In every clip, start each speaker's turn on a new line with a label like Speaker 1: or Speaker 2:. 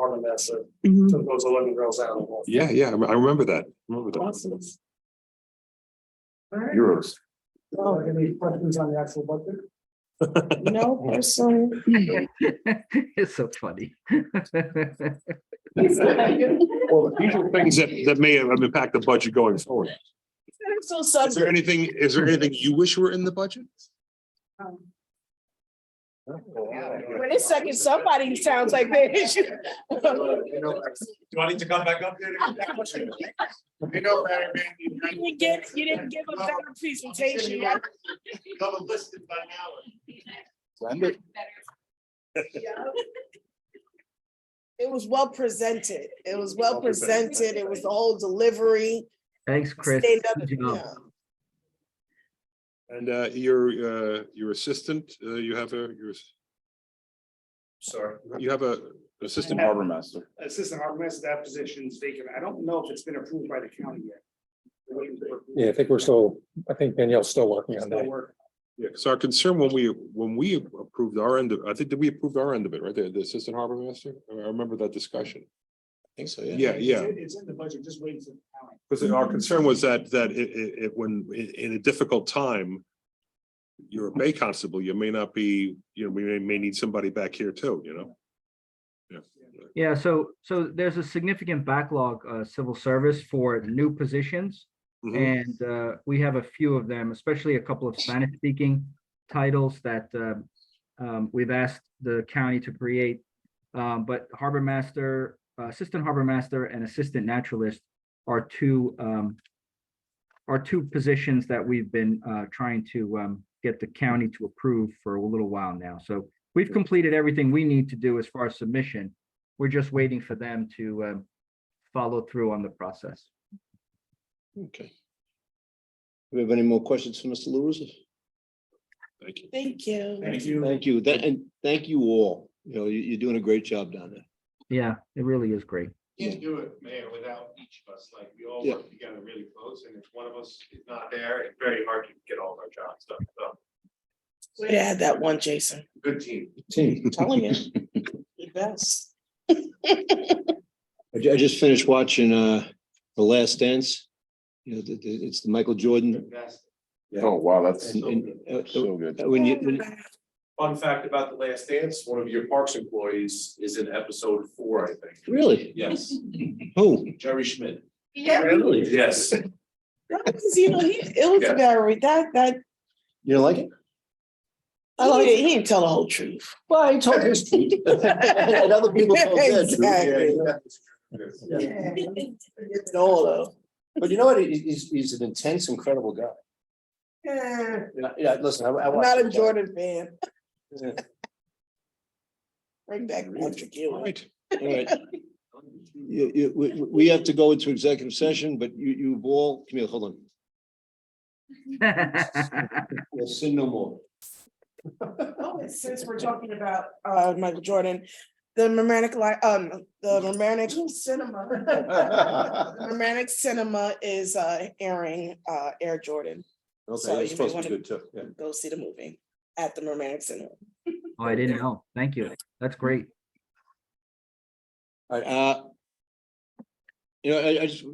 Speaker 1: Carmen that's it.
Speaker 2: Mhm.
Speaker 3: Mm-hmm.
Speaker 1: So it goes eleven girls out of one.
Speaker 4: Yeah, yeah, I re- I remember that. Remember that.
Speaker 1: Awesome. All right.
Speaker 4: Euros.
Speaker 1: Well, are there Oh, Any questions on the actual budget?
Speaker 2: No person.
Speaker 5: It's so funny.
Speaker 4: Well, these are things that, that may have impact the budget going forward.
Speaker 2: So
Speaker 4: Is there anything, is there anything you wish were in the budget?
Speaker 2: When it's second, somebody sounds like they.
Speaker 1: Do I need to come back up there?
Speaker 6: You know, Barry, man, you
Speaker 2: You didn't get, you didn't give a better presentation. Yeah,
Speaker 6: got them listed by now.
Speaker 2: It was well presented. It was well presented. It was the whole delivery.
Speaker 5: Thanks, Chris.
Speaker 2: Stand up,
Speaker 5: Good job.
Speaker 2: yeah.
Speaker 4: And uh, your, uh, your assistant, uh, you have a, your,
Speaker 1: Sorry.
Speaker 4: you have a assistant.
Speaker 1: harbor
Speaker 4: master.
Speaker 1: Assistant Harbor Master, that position's vacant. I don't know if it's been approved by the county yet. We're waiting for-
Speaker 7: Yeah, I think we're still, I think Danielle's still working on
Speaker 1: Still
Speaker 7: that.
Speaker 1: work.
Speaker 4: Yeah, so our concern when we, when we approved our end of, I think that we approved our end of it, right? The the assistant harbor master? I remember that discussion.
Speaker 6: Think so,
Speaker 4: Yeah, yeah.
Speaker 1: It's in- It's in the budget, just waiting for the county.
Speaker 4: Because our
Speaker 6: Mm-hmm.
Speaker 4: concern was that, that it, it, it- when, in, in a difficult time, you're a Bay Constable, you may not be, you know, we may, may need somebody back here too, you know?
Speaker 5: Yeah, so, so there's a significant backlog, uh, civil service for new positions.
Speaker 4: Mhm.
Speaker 5: And uh, we have a few of them, especially a couple of Spanish speaking titles that um, um, we've asked the county to create. Um, But harbor master, uh, assistant harbor master and assistant naturalist are two um, are two positions that we've been uh, trying to um, get the county to approve for a little while now. So we've completed everything we need to do as far as submission. We're just waiting for them to um, follow through on the process.
Speaker 6: Okay. Do we have any more questions for Mr. LaRusso?
Speaker 4: Thank you.
Speaker 2: Thank you.
Speaker 1: Thank you.
Speaker 6: Thank you, Tha- and thank you all. You know, you, you're doing a great job down there.
Speaker 5: Yeah, it really is great.
Speaker 3: Can't do it, mayor, without each of us, like, we all
Speaker 6: Yeah.
Speaker 3: work together really close, and if one of us is not there, it's very hard to get all of our jobs done, so,
Speaker 2: Way to add that one, Jason.
Speaker 3: good team.
Speaker 6: Team.
Speaker 2: Telling you. The best.
Speaker 6: I, ju- I just finished watching, uh, The Last Dance. You know, the, the, it's the Michael Jordan.
Speaker 3: That's-
Speaker 8: Oh, wow, that's
Speaker 6: and- and, uh,
Speaker 8: so good.
Speaker 6: uh, When you, when-
Speaker 3: Fun fact about The Last Dance, one of your parks employees is in episode four, I think.
Speaker 6: really?
Speaker 3: Yes,
Speaker 6: Who?
Speaker 3: Jerry Schmidt.
Speaker 2: Yeah,
Speaker 6: Really?
Speaker 3: Yes.
Speaker 2: because you know, he, it was
Speaker 3: Yeah.
Speaker 2: very, that, that,
Speaker 6: You don't like it?
Speaker 2: I like it. He didn't tell the whole truth.
Speaker 6: Well, he told his truth. And other people told their truth.
Speaker 2: Exactly.
Speaker 3: Yes.
Speaker 2: Yeah. It's all though.
Speaker 6: But you know what? He- He's, he's an intense, incredible guy. Yeah, yeah, listen, I, I.
Speaker 2: I'm
Speaker 6: watched
Speaker 2: not
Speaker 6: the
Speaker 2: a
Speaker 6: guy.
Speaker 2: Jordan fan.
Speaker 6: Yeah.
Speaker 2: Bring back Patrick
Speaker 4: All
Speaker 2: Ewing.
Speaker 4: right.
Speaker 6: All right. You, you, we, we we have to go into executive session, but you, you've all, Camille, hold on.
Speaker 5: Oh,
Speaker 6: We'll sin no more.
Speaker 2: Oh, and Since we're talking about uh Michael Jordan, the romantic li- um, the romantic cinema. The romantic cinema is uh airing uh Air Jordan. So
Speaker 6: Okay,
Speaker 2: you may
Speaker 6: that's supposed to
Speaker 2: wanna-
Speaker 6: be good too. yeah.
Speaker 2: Go see the movie at the romantic cinema.
Speaker 5: Oh, I didn't know. Thank you. That's great.
Speaker 6: All right, uh. You know, I, I just,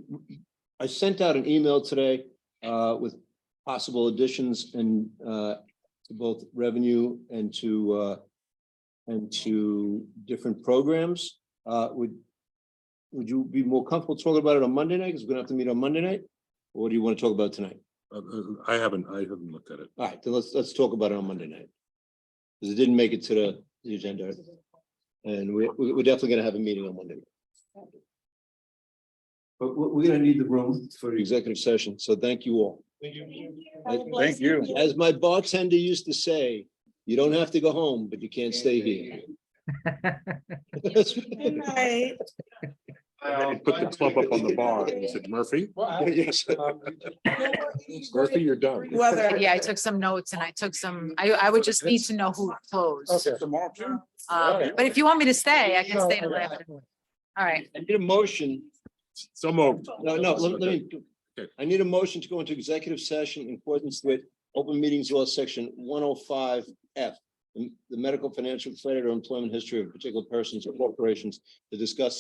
Speaker 6: I sent out an email today, uh, with possible additions and, uh, to both revenue and to, uh. And to different programs, uh, would. Would you be more comfortable talking about it on Monday night? Because we're gonna have to meet on Monday night? Or do you want to talk about it tonight?
Speaker 4: Uh, uh, I haven't, I haven't looked at it.
Speaker 6: All right, then let's, let's talk about it on Monday night. Because it didn't make it to the, the agenda. And we, we- we're definitely gonna have a meeting on Monday. night. But we, we're gonna need the room for the executive session, so thank you all.
Speaker 8: Thank you.
Speaker 6: As my bartender used to say, you don't have to go home, but you can't stay here.
Speaker 2: Good night.
Speaker 4: And then he put the club up on the bar and he said, Murphy? Yes. Murphy, you're done.
Speaker 2: Whether.
Speaker 9: Yeah, I took some notes and I took some, I, I would just need to know who closed.
Speaker 8: Tomorrow too?
Speaker 9: Um, but if you want me to stay, I can stay till eleven. All right,
Speaker 6: I need a motion,
Speaker 4: So moved.
Speaker 6: no, no, let let me, I need a motion to go into executive session in accordance with open meetings law section one oh five F. the the medical, financial, credit, or employment history of particular persons or corporations to discuss